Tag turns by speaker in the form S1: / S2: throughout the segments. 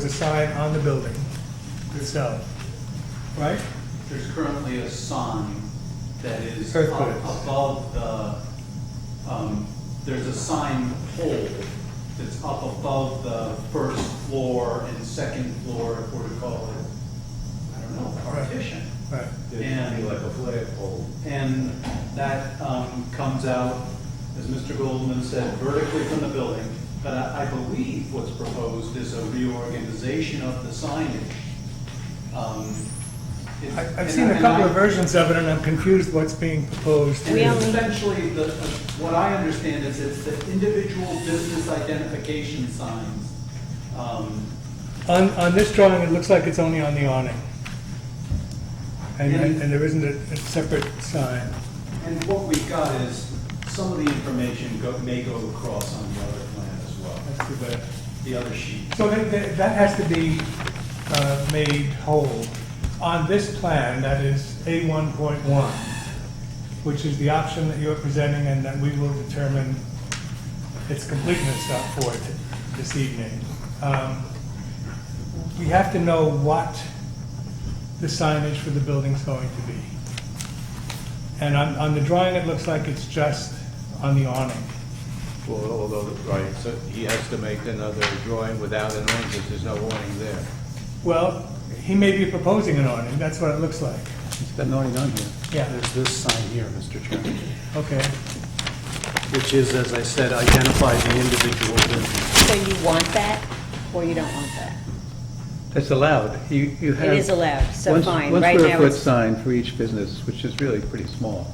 S1: There's a sign on the building itself, right?
S2: There's currently a sign that is up
S1: Earthquake.
S2: above the, um, there's a sign pole that's up above the first floor and second floor, if we're to call it, I don't know, partition.
S1: Right.
S3: It'd be
S2: And-
S3: like a flagpole.
S2: And that um, comes out, as Mr. Goldman said, vertically from the building. But I I believe what's proposed is a reorganization of the signage. Um, it-
S1: I-
S2: and
S1: I've seen a
S2: and
S1: couple
S2: I-
S1: of versions of it, and I'm confused what's being proposed.
S2: And
S4: We
S2: it's
S4: only-
S2: essentially, the, what I understand is it's the individual business identification signs. Um,
S1: On, on this drawing, it looks like it's only on the awning. And,
S2: And-
S1: and there isn't a a separate sign.
S2: And what we've got is, some of the information go- may go across on the other plan as well,
S1: That's too bad.
S2: the other sheet.
S1: So that, that that has to be uh, made whole. On this plan, that is A1.1, which is the option that you're presenting and that we will determine its completeness up for it this evening. Um, We have to know what the signage for the building's going to be. And on, on the drawing, it looks like it's just on the awning.
S3: Well, although, right, so he has to make another drawing without an awning, because there's no awning there.
S1: Well, he may be proposing an awning, that's what it looks like.
S5: There's been nothing done here.
S1: Yeah.
S5: There's this sign here, Mr. Chairman,
S1: Okay.
S5: which is, as I said, identifies the individual business.
S4: So you want that, or you don't want that?
S6: That's allowed. You, you
S4: It
S6: have.
S4: is allowed, so
S6: one-
S4: fine,
S6: One
S4: right
S6: square
S4: now
S6: foot
S4: it's,
S6: sign for each business, which is really pretty small,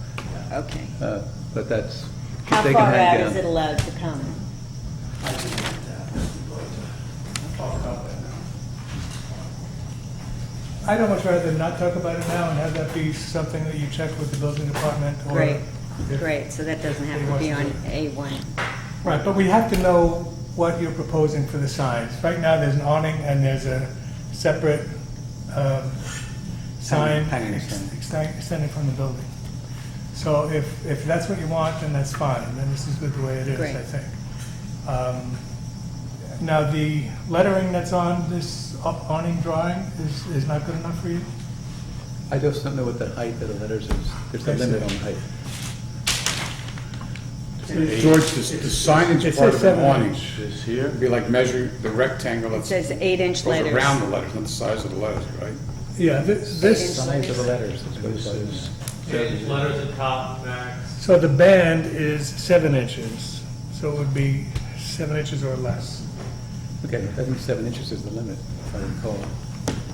S4: okay.
S6: uh, but that's.
S4: How
S6: they can
S4: far
S6: hang
S4: out is
S6: down.
S4: it allowed to come?
S2: I can get that, I'll talk about that now.
S1: I'd almost rather not talk about it now and have that be something that you check with the building department or.
S4: Great,
S1: if-
S4: great, so that doesn't have to be on A1.
S1: Right, but we have to know what you're proposing for the signs. Right now, there's an awning and there's a separate um, sign
S5: Hanging
S1: ex-
S5: sign.
S1: extend- extending from the building. So if, if that's what you want, then that's fine, then this is good the way it is,
S4: Great.
S1: I think. Um, Now, the lettering that's on this up- awning drawing is, is not good enough for you?
S6: I just don't know what the height of the letters is. There's a
S1: I see.
S6: limit on height.
S7: George, the the
S1: It
S7: signage
S1: says
S7: part of an
S1: seven
S7: awning
S1: inch.
S3: Is here?
S7: would be like measuring the rectangle
S4: It
S7: that's
S4: says
S7: goes
S4: eight-inch letters.
S7: around the letters, not the size of the letters, right?
S1: Yeah, this, this,
S6: Size of the letters is what it's
S3: This
S6: like.
S3: is,
S8: Change letters at top, max.
S1: so the band is seven inches, so it would be seven inches or less.
S6: Okay, I think seven inches is the limit, if I recall.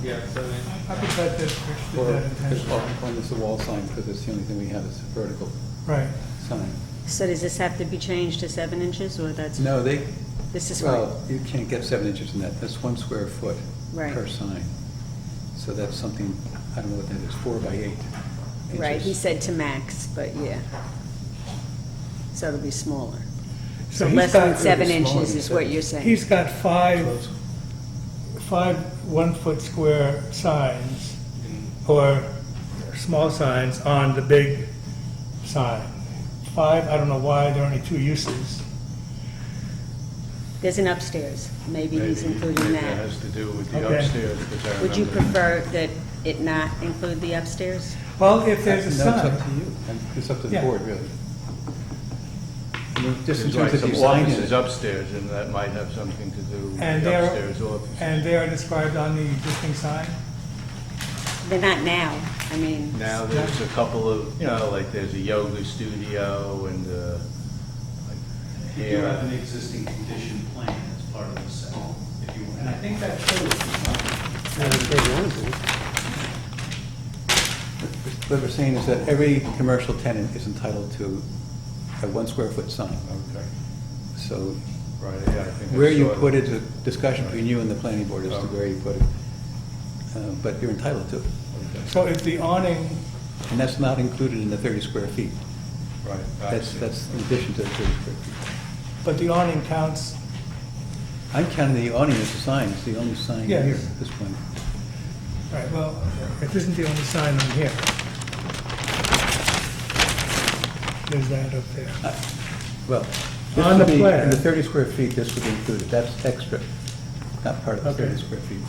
S8: Yeah, seven inch.
S1: I could bet that Rich did
S6: Or,
S1: that
S6: it's
S1: intentionally.
S6: often it's a wall sign, because it's the only thing we have is a vertical
S1: Right.
S6: sign.
S4: So does this have to be changed to seven inches, or that's,
S6: No, they,
S4: this is fine?
S6: well, you can't get seven inches in that. That's one square foot
S4: Right.
S6: per sign. So that's something, I don't know what that is, four by eight inches.
S4: Right, he said to max, but yeah. So it'll be smaller. So
S1: he's
S4: less than
S1: got-
S4: seven
S6: It'll be smaller
S4: inches
S6: than
S4: is what
S6: seven.
S4: you're saying?
S1: He's got five,
S6: Close.
S1: five one-foot square signs, or small signs on the big sign. Five, I don't know why, there are only two uses.
S4: There's an upstairs, maybe
S3: maybe,
S4: he's including
S3: maybe that
S4: that.
S3: has to do with the
S1: Okay.
S3: upstairs, because I remember.
S4: Would you prefer that it not include the upstairs?
S1: Well, if there's a
S6: No, It's up to
S1: sign,
S6: you, And it's up to the
S1: Yeah.
S6: board, really. I mean, Just in
S3: There's
S6: terms
S3: like
S6: of
S3: some
S6: design in
S3: offices
S6: it.
S3: upstairs, and that might have something to do with
S1: And
S3: the
S1: they're-
S3: upstairs office.
S1: and they are described on the existing sign,
S4: They're not now, I mean.
S3: Now, there's a couple of, you know, like, there's a yoga studio and, uh, like,
S2: You do have
S3: hair.
S2: an existing condition plan as part of the set, if you want, and I think that shows.
S6: What we're saying is that every commercial tenant is entitled to a one square foot sign.
S3: Okay.
S6: So
S3: Right, yeah, I think I
S6: where you
S3: saw
S6: put
S3: that.
S6: it is a discussion between you and the planning board as to
S3: Oh.
S6: where you put it. Uh, But you're entitled to it.
S3: Okay.
S1: so if the awning,
S6: And that's not included in the 30 square feet.
S3: Right. I
S6: That's,
S3: see.
S6: that's in addition to the 30 square feet.
S1: but the awning counts,
S6: I'm counting the awning as a sign, it's the only sign here
S1: Yes.
S6: at this point.
S1: right, well, it isn't the only sign on here. There's that up there.
S6: Well, this
S1: On the
S6: would be,
S1: plan.
S6: in the 30 square feet, this would be included, that's extra. not part of the 30 square feet.